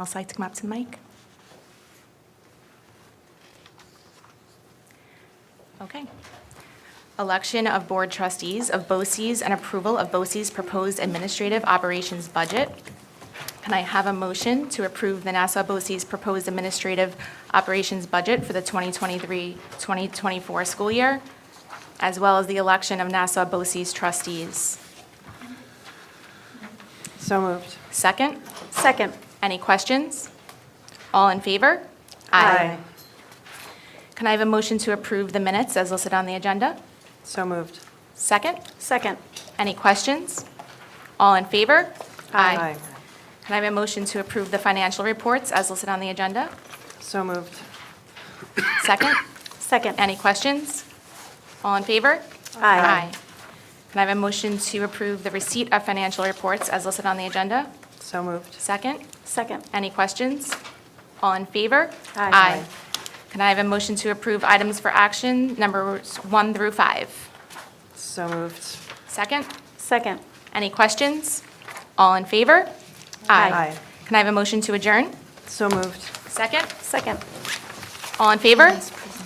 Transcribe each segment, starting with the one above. I'll like to come up to the mic. Okay. Election of Board Trustees of BOCES and approval of BOCES' proposed administrative operations budget. Can I have a motion to approve the Nassau BOCES proposed administrative operations budget for the 2023-2024 school year, as well as the election of Nassau BOCES trustees? So moved. Second? Second. Any questions? All in favor? Can I have a motion to approve the minutes as listed on the agenda? So moved. Second? Second. Any questions? All in favor? Can I have a motion to approve the financial reports as listed on the agenda? So moved. Second? Second. Any questions? All in favor? Aye. Can I have a motion to approve the receipt of financial reports as listed on the agenda? So moved. Second? Second. Any questions? All in favor? Aye. Can I have a motion to approve items for action, numbers one through five? So moved. Second? Second. Any questions? All in favor? Aye. Can I have a motion to adjourn? So moved. Second? Second. All in favor?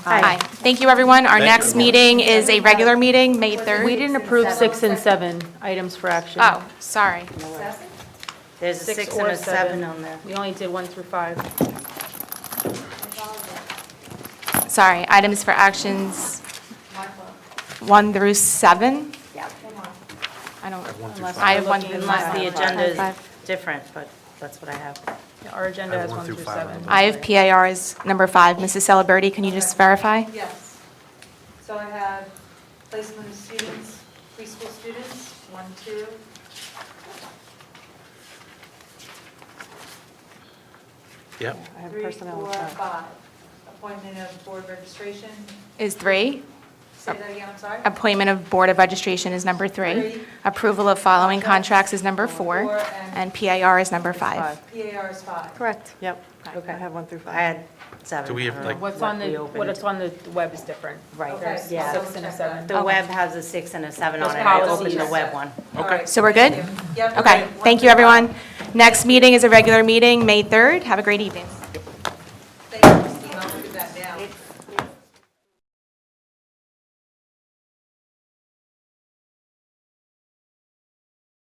Aye. Thank you, everyone. Our Thank next you. meeting is a regular meeting, May 3rd. We didn't approve six and seven items for action. Oh, sorry. There's a six and or a seven on there. We only did one through five. Sorry. Items for actions, one through seven? Yeah. I don't, I have one through Unless the five. agenda is Five. different, but that's what I have. Our agenda I has went one through through five on seven. the I have PAR is number five. Mrs. Celebrity, can you just verify? Yes. So I have placement of students, preschool students, one, two. Yep. I have three, personnel. four, uh, five. Appointment of board registration, Is three. say that again, I'm sorry. Appointment of Board of Registration is number three. Three. Approval of following contracts is number four. Four And and- PAR is number five. PAR is five. Correct. Yep. Okay. I have one through I five. had seven. Do we have, I don't know like- What's on the, we what opened. is on the web is different. Right, Okay, there's, so yeah. Six and a check seven. The web has a six and a seven on Those it. I opened policies. the web one. All Okay. right, So we're good? thank you. Yep, we're Okay, good. One thank you, through five. everyone. Next meeting is a regular meeting, May 3rd. Have a great evening.